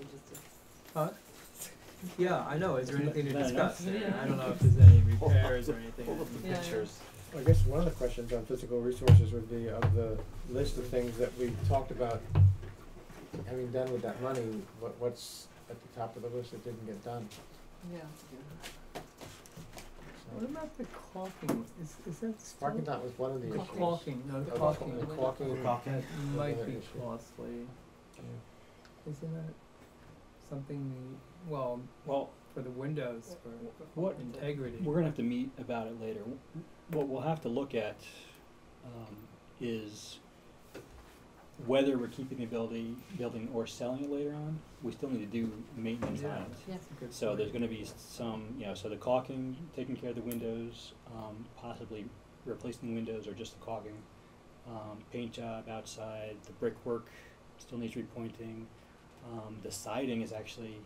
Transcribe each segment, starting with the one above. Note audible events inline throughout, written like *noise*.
existed. Uh, yeah, I know, is there anything to Fair enough. discuss there? Yeah. I don't know *laughs* if there's any repairs or anything. Pull up the Yeah. pictures. I guess one of the questions on physical resources would be of the list of things that we talked about having done with that money, what, what's at the top of the list that didn't get done? Yeah. What So, about the caulking, is, is that still? Parking lot was one of the Ca- issues. Caulking, no, The caulking caulking, the caulking, Crockett. might another be issue. costly, yeah. isn't it? Something, the- well, Well, for the windows, for What- integrity. we're gonna have to meet about it later. What we'll have to look at, um, is whether we're keeping the building, building or selling it later on, we still need to do maintenance on Yeah. it. Yes. That's a good So there's point. gonna be some, you know, so the caulking, taking care of the windows, um, possibly replacing the windows or just the caulking. Um, paint job outside, the brickwork still needs repointing. Um, the siding is actually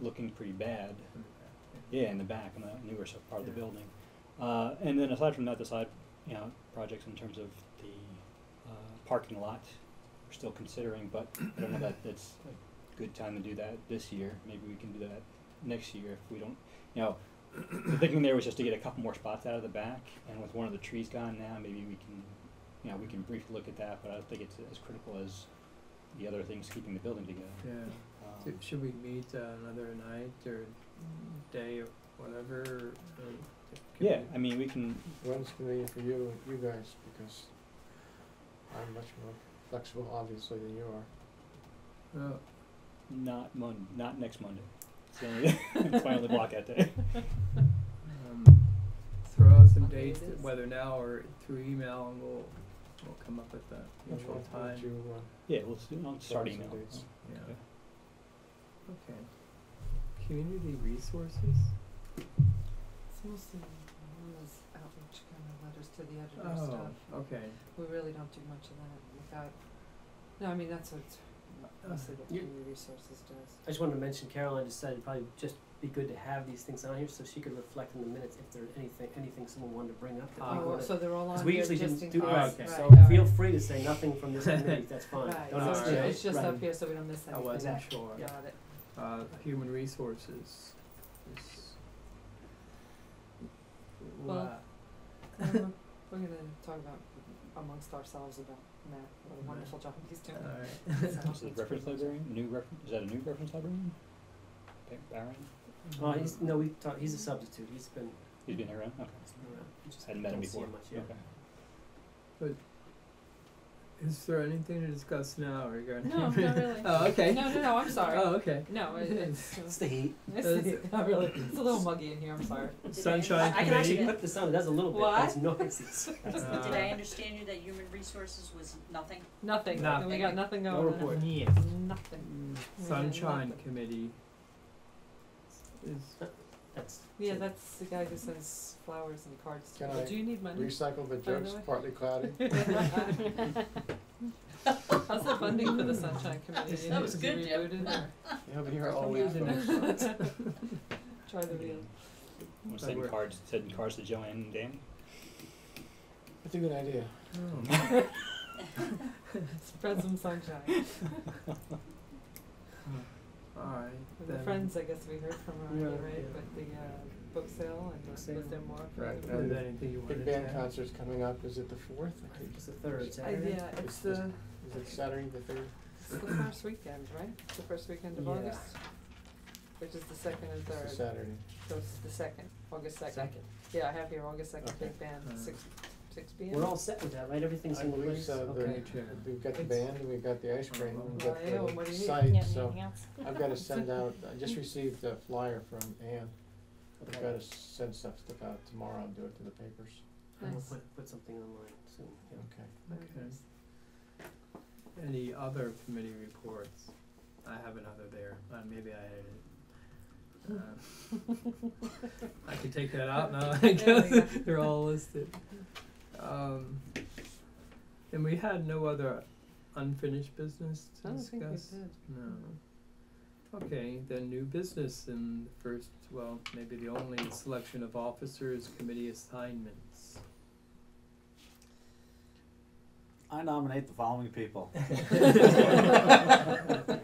looking pretty bad. Yeah, in the back, in the newer sub- part of the Yeah. building. Uh, and then aside from that, the side, you know, projects in terms of the, uh, parking lot, we're still considering, but I don't know that that's a good time to do that this year. Maybe we can do that next year if we don't, you know, *clears throat* the thinking there was just to get a couple more spots out of the back, and with one of the trees gone now, maybe we can, you know, we can briefly look at that, but I don't think it's as critical as the other things keeping the building together. Yeah. Um, Should, should we meet uh, another night or day or whatever? Or or can Yeah, we- I mean, we can, When's convenient for you, you guys, because I'm much more flexible, obviously, than you are. Oh, Not Mon- not next Monday. It's the only, it's my only *laughs* blockout day. um, throw out some Okay, it dates, is. whether now or through email, and we'll we'll come up with the Which usual one would time. you, uh, Yeah, we'll s- I'll start Those are email. dates. Yeah. Okay. Okay. Community resources. It's mostly one of those outreach kind of letters to the editor Oh, stuff. okay. We really don't do much of that without, no, I mean, that's what it's, mostly what you- community resources does. I just wanted to mention Caroline just said it'd probably just be good to have these things on here so she could reflect in the minutes if there's anything anything someone wanted to bring up that we Oh, Oh, wanted. so they're all Because on we here usually just didn't in do case, that, right, okay. so all feel right. free to say nothing from *laughs* this committee. That's fine. Right, Don't so ask it's me. ju- upset. it's just up Right. here so we don't miss I anything. wasn't Exactly. sure. Got it. Uh, human resources. is- Well, Wow. Um, We're gonna talk about amongst ourselves about Matt, what Right. a wonderful job he's doing. Alright. So *laughs* This is that's reference pretty much it. librarian, new reference, is that a new reference librarian? Pa- Barron, Oh, he's no, we talked. He's a substitute. He's been, he's been around, okay, he's been around. You just hadn't met him don't see before, much, okay. yeah. Is there anything to discuss now regarding? *laughs* No, not really. Oh, okay. No, no, no, I'm sorry. Oh, okay. No, it- it's, It's it's, the heat. *laughs* it's not really, it's a little muggy in here, I'm sorry. Sunshine I, I can actually committee. clip this on. It does a little bit. What? but It's *laughs* noisy. Uh, Did I understand you that human resources was nothing? Nothing, Nothing. we got nothing going No on. Mm, report. Yeah. Nothing. Sunshine nothing. committee. Is, That's Yeah, that's the guy who sends flowers and cards to Can people. I Do you need money? *laughs* *laughs* Recycle the By the jokes, way. partly *laughs* cloudy. How's the funding for the Sunshine Committee? That was good, Jim. Rebooted or Yeah, but here are all Sometimes these it *laughs* folks. try the wheel? I'm That sending works. cards, sending cards to Joanne and Danny. That's a good idea. oh, Spread some sunshine. alright, The then. friends, I guess we heard from already, Yeah, right, yeah. but the uh book sale and was sale. there more? for Uh, Right, the- Is there anything you wanted to Big band add? concert's coming up, is it the fourth? I think it's the third I- Saturday. Yeah, it's It's the, Is it Saturday the third? it's the first weekend, right? It's the first weekend of Yeah. August? Which is the second and It's a third, Saturday. so it's the second, August second. Second. Yeah, I have here August second, Okay. big band, Uh, six, six P M. We're all set with that, right? Everything's I in believe place. so. The- Okay. Me too. We've got the It's- band, and we've got the ice cream, and Well, Oh, yeah, we've what do got the you need? site, so I've *laughs* gotta send out, I just received a flyer from Ann. I've Okay. gotta send stuff stuff out tomorrow, I'll do it to the papers. And we'll Nice. put, put something online soon. Yeah. Okay. Very Okay. nice. Any other committee reports? I have another there, uh, maybe I added it. Uh, *laughs* I could take that *laughs* out now, I There we guess, *laughs* they're all listed. Um, and we had no other unfinished business I to don't discuss? think we did. No. Okay, then new business and the first, well, maybe the only selection of officers, committee assignments. *laughs* I nominate the following people. Mhm. *laughs*